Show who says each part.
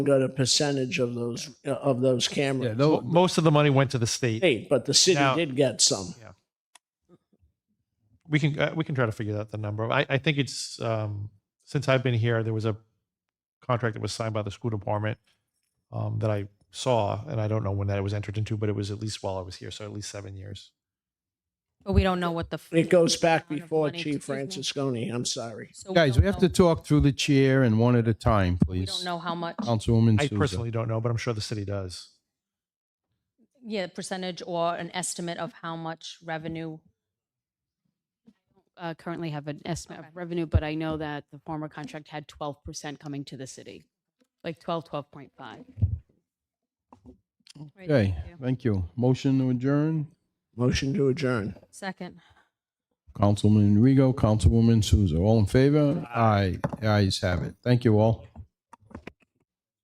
Speaker 1: got a percentage of those, uh, of those
Speaker 2: Yeah,
Speaker 1: cameras.
Speaker 2: tho-
Speaker 3: Most of the money went to the state.
Speaker 1: Hey, But the city
Speaker 3: Now-
Speaker 1: did get some.
Speaker 3: We can, uh, we can try to figure out the number. I, I think it's, um, since I've been here, there was a contract that was signed by the school department um, that I saw, and I don't know when that was entered into, but it was at least while I was here, so at least seven years.
Speaker 4: But we don't know what the. f-
Speaker 1: It goes back
Speaker 4: amount of
Speaker 1: before
Speaker 4: money-
Speaker 1: Chief
Speaker 4: excuse me.
Speaker 1: Francisconi, I'm sorry.
Speaker 4: So
Speaker 2: Guys,
Speaker 4: don't
Speaker 2: we have
Speaker 4: know-
Speaker 2: to talk through the chair and one at a time,
Speaker 4: We
Speaker 2: please.
Speaker 4: don't know how much,
Speaker 2: Councilwoman
Speaker 3: I
Speaker 2: Souza.
Speaker 3: personally don't know, but I'm sure the city does.
Speaker 4: yeah, percentage or an estimate of how much revenue.
Speaker 5: uh, currently have an estimate of revenue, but I know that the former contract had 12% coming to the city, like 12, 12.5.
Speaker 4: Right,
Speaker 2: Okay,
Speaker 4: thank you.
Speaker 2: thank you. Motion to adjourn,
Speaker 1: Motion to adjourn.
Speaker 4: Second.
Speaker 2: Councilman Rego, Councilwoman Souza. All in favor? Aye, ayes have it. Thank you all.